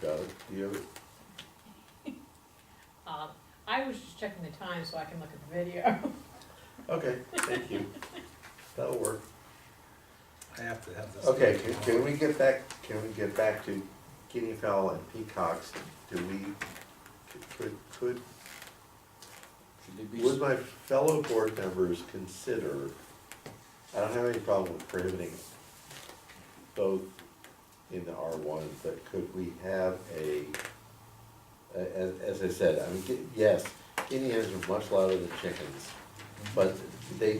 Doug, do you? Um, I was just checking the time so I can look at the video. Okay, thank you. That'll work. I have to have this. Okay, can, can we get back, can we get back to guinea fowl and peacocks? Do we, could, could, Should they be, would my fellow board members consider, I don't have any problem with prohibiting both in the R one, but could we have a, a- as, as I said, I mean, gu- yes, guinea hens are much louder than chickens, but they,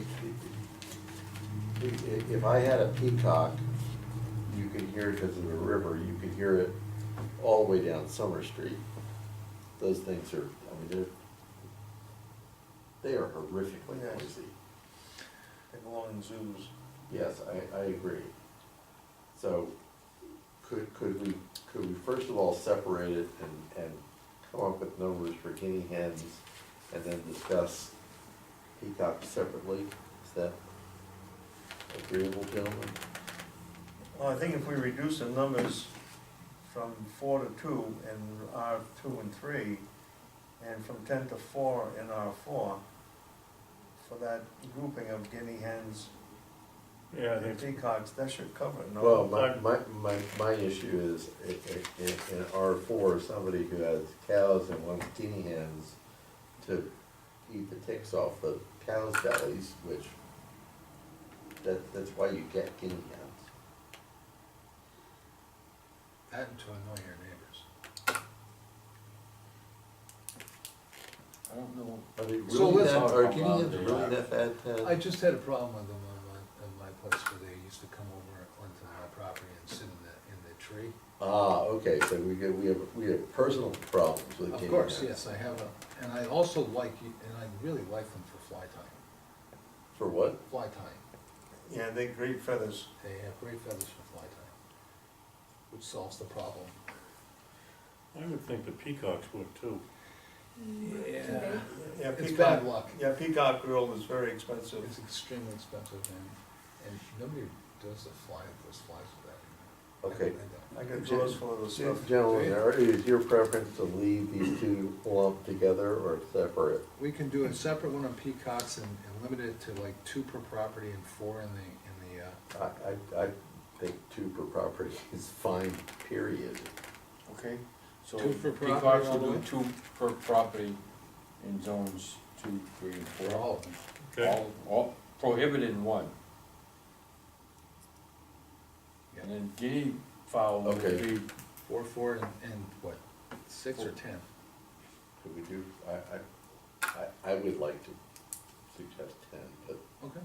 i- i- if I had a peacock, you could hear it because of the river, you could hear it all the way down Summer Street. Those things are, I mean, they're, they are horrifically Yes. noisy. They belong in zoos. Yes, I, I agree. So could, could we, could we first of all separate it and, and come up with numbers for guinea hens and then discuss peacocks separately? Is that agreeable, gentlemen? Well, I think if we reduce the numbers from four to two in R two and three, and from ten to four in R four, for that grouping of guinea hens Yeah, I and think, peacocks, that should cover it, no? Well, my, I- my, my, my issue is, i- i- in, in R four, somebody who has cows and wants guinea hens to eat the ticks off the cows' bellies, which, that, that's why you get guinea hens. That and to annoy your neighbors. I don't know. Are they really So let's- that, are guinea Well, hens they really are. that bad, Ted? I just had a problem with them on my, on my place where they used to come over onto my property and sit in the, in the tree. Ah, okay, so we get, we have, we have personal problems with guinea hens. Of course, yes, I have a, and I also like, you- and I really like them for fly tying, For what? fly tying. Yeah, they're great feathers. They have great feathers for fly tying, which solves the problem. I would think the peacocks would too. Yeah. Yeah, It's peacock- bad luck. Yeah, peacock grill is very expensive. It's extremely expensive and, and nobody does the fly, those flies for that. Okay. I don't- I don't. I got drawers full of this stuff. Gentlemen, are- is your preference to leave these two lumped together or separate? We can do a separate one on peacocks and, and limit it to like two per property and four in the, in the, uh, I, I, I think two per property is fine, period. Okay, so Two for property peacocks all will the do way? two per property in zones two, three, and for four. all of them. Okay, All, all prohibited in one. Yeah. And then guinea fowl would Okay. be, Four, four, and, and what, six or ten? Could we do, I, I, I, I would like to suggest ten, but Okay.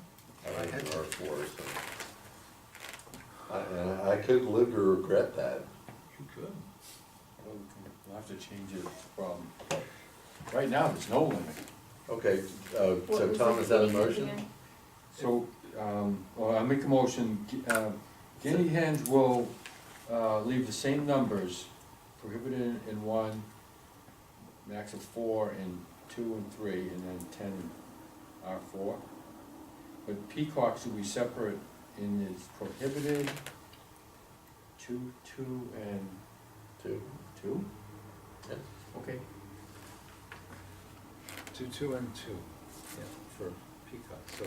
I like R four, so. I, and I could live to regret that. You could. we'll have to change it from, right now, there's no limit. Okay, uh, so Tom, is that a motion? So, um, well, I make a motion, gu- uh, guinea hens will, uh, leave the same numbers prohibited in one, max of four in two and three, and then ten in R four. But peacocks will be separate in its prohibited, two, two, and Two? two? Yes. Okay. Two, two, and two, yeah, for peacocks, so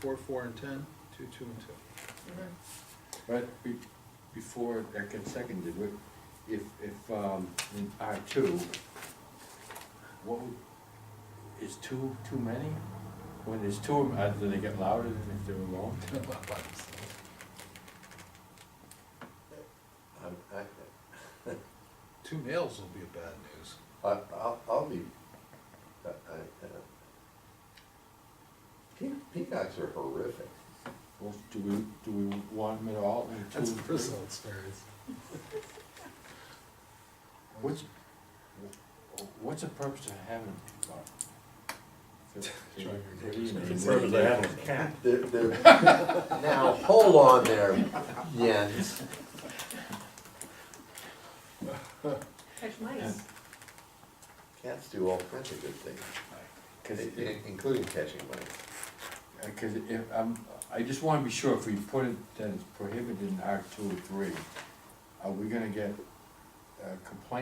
four, four, and ten, two, two, and two. But be, before that gets seconded, we- if, if, um, in R two, what would, is two too many? When there's two, of 'em, uh, do they get louder than if they're alone? I, I, Two males will be bad news. I, I'll, I'll be, I, I, uh, pe- peacocks are horrific. Well, do we, do we want them at all in two? That's a and three? personal experience. What's, what's the purpose of having? What's the purpose of having a cat? They're, they're, now, hold on there, Jens. Catch mice. Cats do all kinds of good things, Cause i- it, i- including catching mice. Because if, um, I just wanna be sure, if oh we put it that it's prohibited in Act two or three, are we gonna get uh, complaint